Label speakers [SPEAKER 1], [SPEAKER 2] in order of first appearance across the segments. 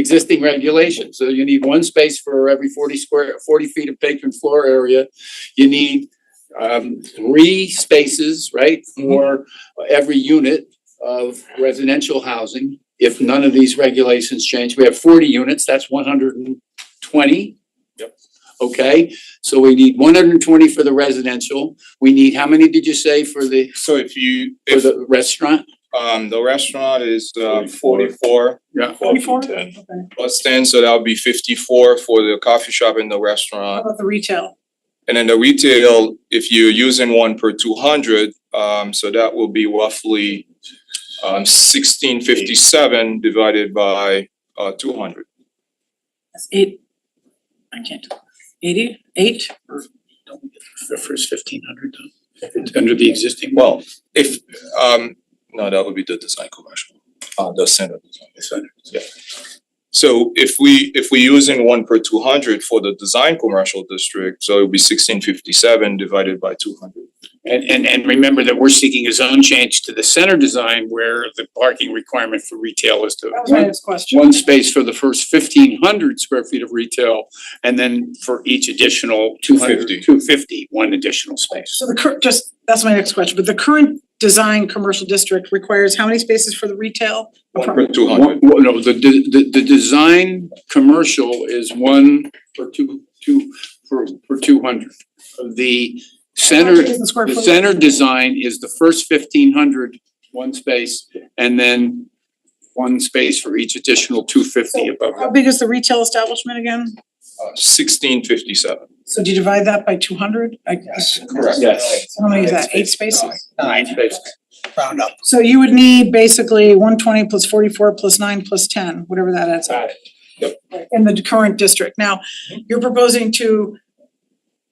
[SPEAKER 1] existing regulations. So you need one space for every forty square, forty feet of patron floor area. You need um three spaces, right, for every unit of residential housing. If none of these regulations change, we have forty units, that's one hundred and twenty.
[SPEAKER 2] Yep.
[SPEAKER 1] Okay, so we need one hundred and twenty for the residential. We need, how many did you say for the,
[SPEAKER 2] So if you,
[SPEAKER 1] for
[SPEAKER 2] if
[SPEAKER 1] the restaurant?
[SPEAKER 2] um the restaurant is uh
[SPEAKER 3] 44.
[SPEAKER 2] forty-four
[SPEAKER 1] Yeah.
[SPEAKER 3] Forty-four?
[SPEAKER 4] ten.
[SPEAKER 3] Okay.
[SPEAKER 2] plus ten, so that would be fifty-four for the coffee shop and the
[SPEAKER 3] How
[SPEAKER 2] restaurant.
[SPEAKER 3] about the retail?
[SPEAKER 2] And then the retail, if you're using one per two hundred, um so that will be roughly um sixteen fifty-seven divided by uh two hundred.
[SPEAKER 3] That's eight. I can't do eighty, eight or
[SPEAKER 1] The first fifteen hundred, under the existing.
[SPEAKER 2] Well, if um, no, that would be the design commercial, uh the center design. Yeah. So if we if we using one per two hundred for the design commercial district, so it would be sixteen fifty seven divided by two hundred.
[SPEAKER 1] And and and remember that we're seeking a zone change to the center design where the parking requirement for retail is to
[SPEAKER 3] that was my
[SPEAKER 1] one
[SPEAKER 3] next question.
[SPEAKER 1] one space for the first fifteen hundred square feet of retail and then for each additional 200
[SPEAKER 2] 250.
[SPEAKER 1] 250, one additional space.
[SPEAKER 3] So the current, just, that's my next question, but the current design commercial district requires how many spaces for the retail?
[SPEAKER 2] One per two
[SPEAKER 1] One,
[SPEAKER 2] hundred,
[SPEAKER 1] one- no, the the the the design commercial is one for two two for for two hundred. The
[SPEAKER 3] How
[SPEAKER 1] center
[SPEAKER 3] much is the square
[SPEAKER 1] The
[SPEAKER 3] foot?
[SPEAKER 1] center design is the first fifteen hundred, one space, and then one space for each additional two fifty above
[SPEAKER 3] How
[SPEAKER 1] that.
[SPEAKER 3] big is the retail establishment again?
[SPEAKER 2] uh sixteen fifty seven.
[SPEAKER 3] So do you divide that by two hundred? I guess.
[SPEAKER 2] Correct.
[SPEAKER 1] Yes.
[SPEAKER 3] So how many is that? Eight spaces?
[SPEAKER 1] Nine spaces.
[SPEAKER 5] round up.
[SPEAKER 3] So you would need basically one twenty plus forty-four plus nine plus ten, whatever that adds up. in the current district. Now, you're proposing to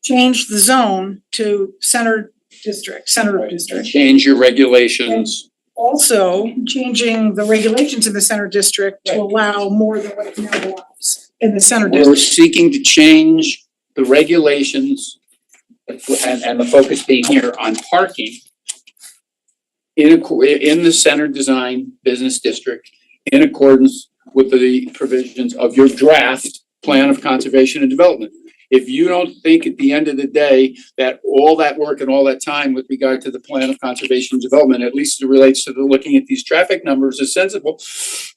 [SPEAKER 3] change the zone to center district, center of district.
[SPEAKER 1] Change your regulations.
[SPEAKER 3] Also, changing the regulations in the center district to allow more than what it now allows in the center
[SPEAKER 1] We're
[SPEAKER 3] district.
[SPEAKER 1] seeking to change the regulations and and the focus being here on parking in acco- in the center design business district in accordance with the provisions of your draft plan of conservation and development. If you don't think at the end of the day that all that work and all that time with regard to the plan of conservation and development, at least it relates to the looking at these traffic numbers is sensible,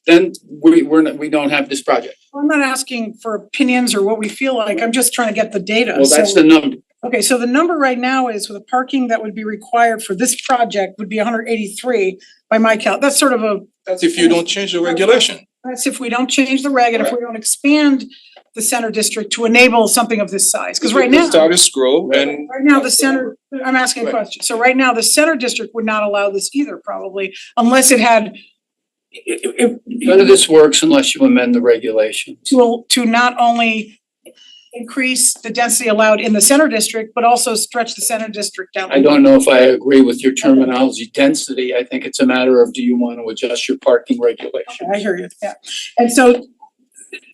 [SPEAKER 1] then we we're not, we don't have this project.
[SPEAKER 3] I'm not asking for opinions or what we feel like, I'm just trying to get the data.
[SPEAKER 1] Well, that's
[SPEAKER 3] So-
[SPEAKER 1] the number.
[SPEAKER 3] Okay, so the number right now is with the parking that would be required for this project would be hundred eighty-three by my count. That's sort of a
[SPEAKER 2] That's if you don't change the regulation.
[SPEAKER 3] That's if we don't change the reg and if we don't expand the center district to enable something of this size, cause right now,
[SPEAKER 2] The status quo and
[SPEAKER 3] right now, the center, I'm asking a question. So right now, the center district would not allow this either probably, unless it had i- i-
[SPEAKER 1] None of this works unless you amend the regulations.
[SPEAKER 3] to to not only increase the density allowed in the center district, but also stretch the center district down.
[SPEAKER 1] I don't know if I agree with your terminology density. I think it's a matter of do you want to adjust your parking regulation?
[SPEAKER 3] I hear you, yeah. And so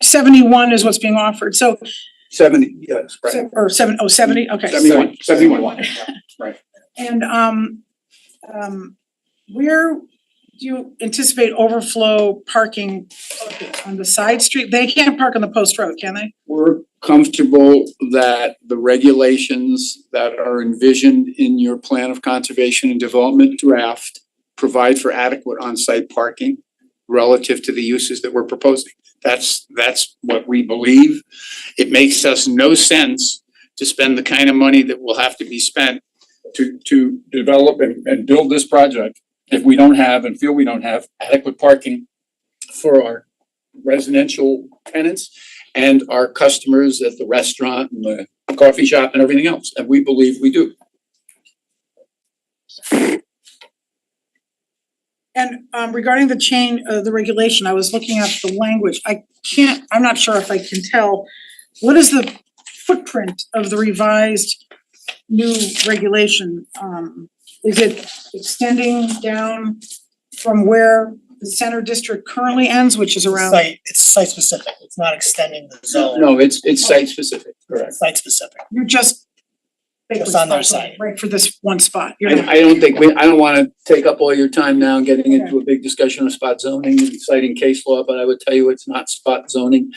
[SPEAKER 3] seventy-one is what's being offered, so,
[SPEAKER 1] Seventy, yes, right.
[SPEAKER 3] or seven, oh, seventy, okay.
[SPEAKER 1] Seventy-one. Seventy-one.
[SPEAKER 3] And um, um, where do you anticipate overflow parking on the side street? They can't park on the post road, can they?
[SPEAKER 1] We're comfortable that the regulations that are envisioned in your plan of conservation and development draft provide for adequate on-site parking relative to the uses that we're proposing. That's, that's what we believe. It makes us no sense to spend the kind of money that will have to be spent to, to develop and, and build this project if we don't have and feel we don't have adequate parking for our residential tenants and our customers at the restaurant and the coffee shop and everything else, and we believe we do.
[SPEAKER 3] And um regarding the chain, uh, the regulation, I was looking at the language. I can't, I'm not sure if I can tell. What is the footprint of the revised new regulation? Um, is it extending down from where the center district currently ends, which is around?
[SPEAKER 5] Site, it's site specific, it's not extending the zone,
[SPEAKER 1] No, it's it's site specific, correct.
[SPEAKER 5] site specific.
[SPEAKER 3] you're just vacant
[SPEAKER 5] Just on their
[SPEAKER 3] spot,
[SPEAKER 5] side.
[SPEAKER 3] Right, for this one spot, you're
[SPEAKER 1] I
[SPEAKER 3] not,
[SPEAKER 1] I don't think, we, I don't wanna take up all your time now getting into a big discussion of spot zoning and citing case law, but I would tell you it's not spot zoning.